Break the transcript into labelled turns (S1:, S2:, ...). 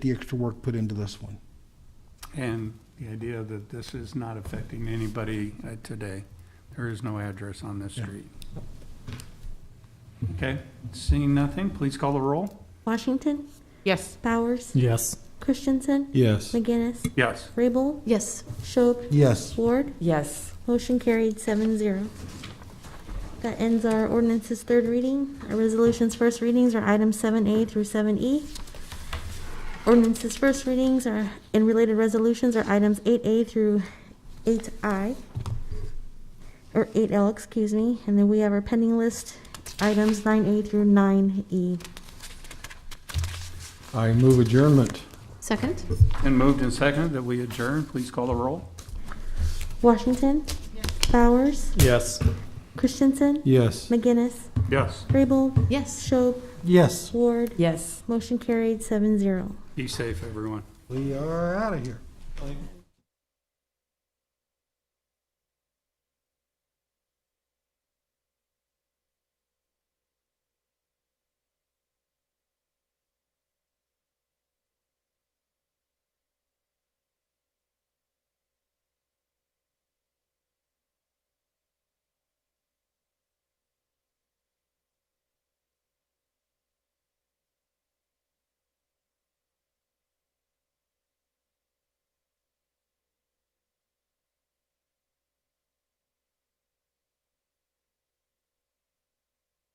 S1: the extra work put into this one.
S2: And the idea that this is not affecting anybody uh, today. There is no address on this
S1: Yeah.
S2: street. Okay, seeing nothing, please call the roll.
S3: Washington,
S4: Yes.
S3: Bowers,
S5: Yes.
S3: Christensen,
S6: Yes.
S3: McGinnis,
S2: Yes.
S3: Rabel,
S4: Yes.
S3: Schob,
S1: Yes.
S3: Ward.
S4: Yes.
S3: Motion carried seven zero. That ends our ordinance's third reading. Our resolution's first readings are items seven A through seven E. Ordinance's first readings are, and related resolutions are items eight A through eight I, or eight L, excuse me, and then we have our pending list, items nine A through nine E.
S6: I move adjournment.
S4: Second?
S2: And moved and seconded that we adjourn, please call the roll.
S3: Washington, Bowers,
S5: Yes.
S3: Christensen,
S6: Yes.
S3: McGinnis,
S2: Yes.
S3: Rabel,
S4: Yes.
S3: Schob,
S1: Yes.
S3: Ward.
S4: Yes.
S3: Motion carried seven zero.
S2: Be safe, everyone.
S1: We are out of here.